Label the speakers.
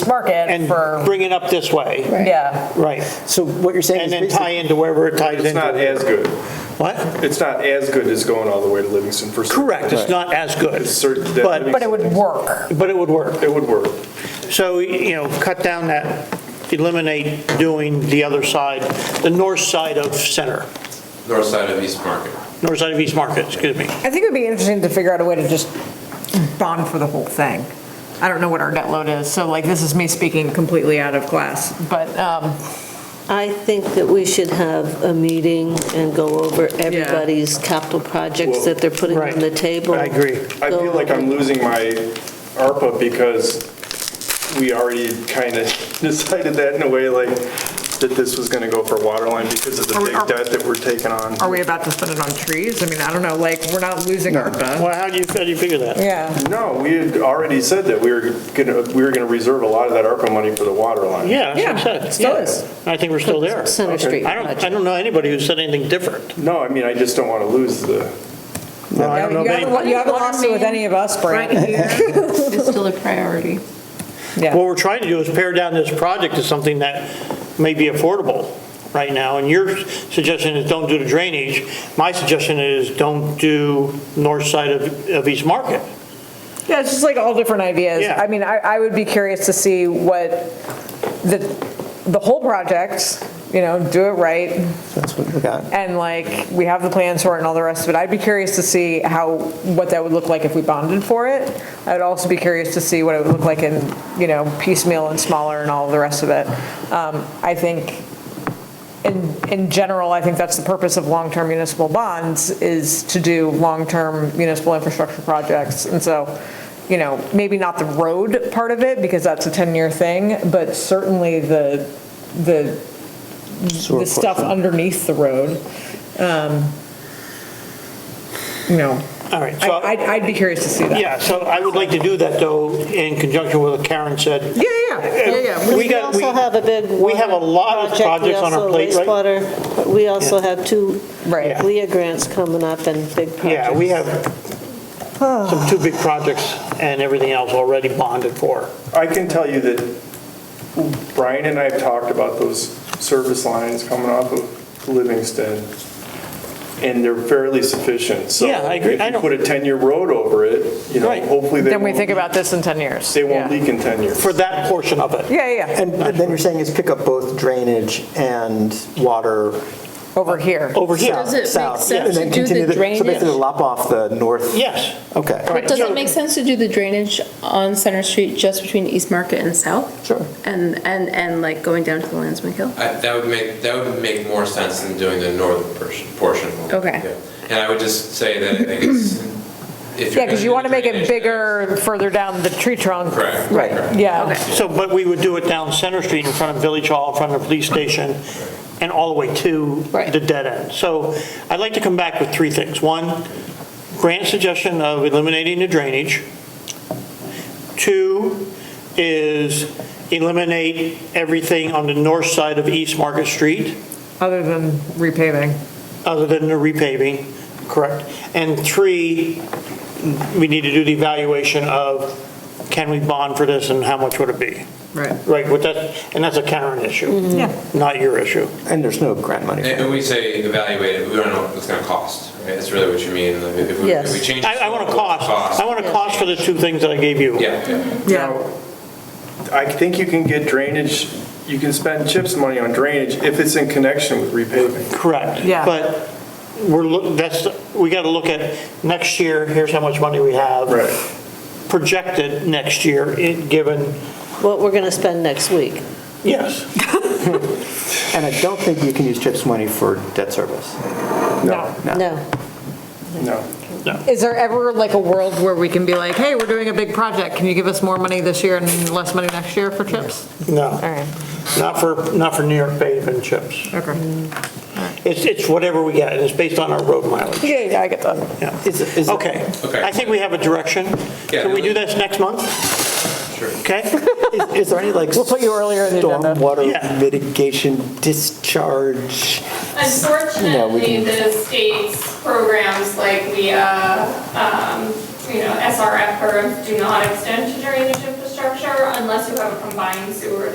Speaker 1: market
Speaker 2: and
Speaker 1: for,
Speaker 2: bring it up this way,
Speaker 1: yeah.
Speaker 2: right?
Speaker 3: So what you're saying
Speaker 2: And
Speaker 3: is.
Speaker 2: then tie into wherever it ties
Speaker 4: It's not
Speaker 2: into.
Speaker 4: as good.
Speaker 2: What?
Speaker 4: It's not as good as going all the way to Livingston for. certain.
Speaker 2: Correct, it's not as good,
Speaker 4: It's certain that
Speaker 2: but,
Speaker 1: But it would work.
Speaker 2: but it would work.
Speaker 4: It would work.
Speaker 2: So, you know, cut down that, eliminate doing the other side, the north side of Center,
Speaker 5: north side of East Market.
Speaker 2: north side of East Market, excuse me.
Speaker 6: I think it would be interesting to figure out a way to just bond for the whole thing. I don't know what our net load is, so like, this is me speaking completely out of class, but, um,
Speaker 7: I think that we should have a meeting and go over everybody's capital projects that they're putting
Speaker 2: Right.
Speaker 7: on the table.
Speaker 2: I agree.
Speaker 4: I feel like I'm losing my ARPA because we already kind of decided that in a way, like, that this was going to go for water line because of the
Speaker 6: Are we-
Speaker 4: big
Speaker 6: are-
Speaker 4: debt that we're taking on.
Speaker 6: are we about to spend it on trees? I mean, I don't know, like, we're not losing ARPA.
Speaker 2: Well, how do you, how do you figure that?
Speaker 6: Yeah.
Speaker 4: No, we had already said that we were going to, we were going to reserve a lot of that ARPA money for the water line.
Speaker 2: Yeah, that's what I
Speaker 6: Yeah,
Speaker 2: said.
Speaker 6: still
Speaker 2: yeah.
Speaker 6: is.
Speaker 2: I think we're still there.
Speaker 7: Center
Speaker 4: Okay.
Speaker 7: Street
Speaker 2: I don't, I
Speaker 7: project.
Speaker 2: don't know anybody who said anything different.
Speaker 4: No, I mean, I just don't want to lose the,
Speaker 2: No, I don't know
Speaker 6: You
Speaker 2: of
Speaker 6: haven't
Speaker 2: anybody.
Speaker 6: you haven't lost it with any of us, Brent.
Speaker 8: It's still a priority.
Speaker 2: What we're trying to do is pare down this project to something that may be affordable right now, and your suggestion is don't do the drainage. My suggestion is don't do north side of, of East Market.
Speaker 6: Yeah, it's just like all different ideas.
Speaker 2: Yeah.
Speaker 6: I mean, I, I would be curious to see what the, the whole project, you know, do it right,
Speaker 3: That's what we got.
Speaker 6: and like, we have the plans for it and all the rest of it. I'd be curious to see how, what that would look like if we bonded for it. I'd also be curious to see what it would look like in, you know, piecemeal and smaller and all the rest of it. Um, I think, in, in general, I think that's the purpose of long-term municipal bonds, is to do long-term municipal infrastructure projects. And so, you know, maybe not the road part of it, because that's a 10-year thing, but certainly the, the the stuff underneath the road. um, You know,
Speaker 2: All right,
Speaker 6: I-
Speaker 2: so.
Speaker 6: I'd, I'd be curious to see that.
Speaker 2: Yeah, so I would like to do that, though, in conjunction with what Karen said.
Speaker 6: Yeah, yeah, yeah, yeah. We-
Speaker 2: We
Speaker 7: We
Speaker 2: got, we,
Speaker 7: also have a big.
Speaker 2: we have a lot of
Speaker 7: water project,
Speaker 2: projects on our plate, right?
Speaker 7: We also have wastewater, we also have two
Speaker 6: Right.
Speaker 7: LEA grants coming up and big projects.
Speaker 2: yeah, we have some two big projects and everything else already bonded for.
Speaker 4: I can tell you that Brian and I have talked about those service lines coming off of Livingston, and they're fairly sufficient, so.
Speaker 2: Yeah, I agree. I
Speaker 4: If
Speaker 2: don't-
Speaker 4: you put a 10-year road over it, you know,
Speaker 2: Right.
Speaker 4: hopefully they
Speaker 6: Then we
Speaker 4: won't
Speaker 6: think
Speaker 4: leak-
Speaker 6: about this in 10 years.
Speaker 4: They won't
Speaker 6: Yeah.
Speaker 4: leak in 10 years.
Speaker 2: for that portion of it.
Speaker 6: Yeah, yeah, yeah,
Speaker 3: And then you're saying is pick up both drainage and water
Speaker 6: over here.
Speaker 2: Over here,
Speaker 8: Does it make
Speaker 3: south. and
Speaker 8: sense
Speaker 3: then
Speaker 8: to do the
Speaker 3: continue So
Speaker 8: drainage?
Speaker 3: basically lop off the north.
Speaker 2: yes.
Speaker 3: Okay.
Speaker 2: Right,
Speaker 8: But does
Speaker 2: so-
Speaker 8: it make sense to do the drainage on Center Street just between East Market and South?
Speaker 3: Sure.
Speaker 8: And, and, and like going down to the Landsman Hill?
Speaker 5: I- That would make, that would make more sense than doing the northern portion- portion.
Speaker 8: Okay.
Speaker 5: Yeah. And I would just say that I think it's, if you're
Speaker 6: Yeah, because you
Speaker 5: gonna
Speaker 6: want
Speaker 5: do
Speaker 6: to make it
Speaker 5: drainage,
Speaker 6: bigger further down the tree trunk.
Speaker 5: Correct.
Speaker 3: Right.
Speaker 5: correct.
Speaker 6: Yeah.
Speaker 2: So, but we would do it down Center Street in front of Village Hall, in front of the police station, and all the way to
Speaker 8: Right.
Speaker 2: the dead end. So I'd like to come back with three things. One, Grant's suggestion of eliminating the drainage. Two is eliminate everything on the north side of East Market Street,
Speaker 6: Other than repaving.
Speaker 2: other than the repaving, correct? And three, we need to do the evaluation of, can we bond for this and how much would it be?
Speaker 6: Right.
Speaker 2: Right, but that, and that's a Karen
Speaker 3: Mm-hmm.
Speaker 2: issue,
Speaker 6: Yeah.
Speaker 2: not your issue.
Speaker 3: And there's no grant money. for
Speaker 5: And
Speaker 3: it.
Speaker 5: and we say evaluate it, we don't know what it's gonna cost, right? That's really what you mean, like, if we, if we
Speaker 7: Yes.
Speaker 5: change.
Speaker 2: I, I want a
Speaker 5: the
Speaker 2: cost, I want a cost for the two things that I gave you.
Speaker 5: Yeah, yeah.
Speaker 6: Yeah.
Speaker 4: I think you can get drainage, you can spend CHIPS money on drainage if it's in connection with repaving.
Speaker 2: Correct.
Speaker 6: Yeah.
Speaker 2: But we're, look. that's, we got to look at next year, here's how much money we have.
Speaker 4: Right.
Speaker 2: Projected next year, it- given,
Speaker 7: What we're going to spend next week.
Speaker 2: yes.
Speaker 3: And I don't think you can use CHIPS money for debt service.
Speaker 6: No.
Speaker 7: No.
Speaker 4: No.
Speaker 6: Is there ever like a world where we can be like, hey, we're doing a big project, can you give us more money this year and less money next year for chips? All
Speaker 2: No,
Speaker 6: right,
Speaker 2: not for, not for New York paving chips.
Speaker 6: okay.
Speaker 2: It's, it's whatever we get, and it's based on our road mileage.
Speaker 6: Yeah, yeah, I get that.
Speaker 2: Yeah.
Speaker 3: Is it- is it-
Speaker 2: Okay.
Speaker 5: Okay.
Speaker 2: I think we have a direction.
Speaker 5: Yeah.
Speaker 2: Can we do this next month?
Speaker 5: Sure.
Speaker 2: Okay?
Speaker 3: Is- Is there any like
Speaker 6: We'll put you earlier in the agenda.
Speaker 2: Yeah.
Speaker 3: stormwater mitigation discharge? No, we
Speaker 9: Unfortunately,
Speaker 3: can-
Speaker 9: the state's programs like the, uh, um, you know, SRF or do not extend to drainage infrastructure. structure unless you have a combined sewer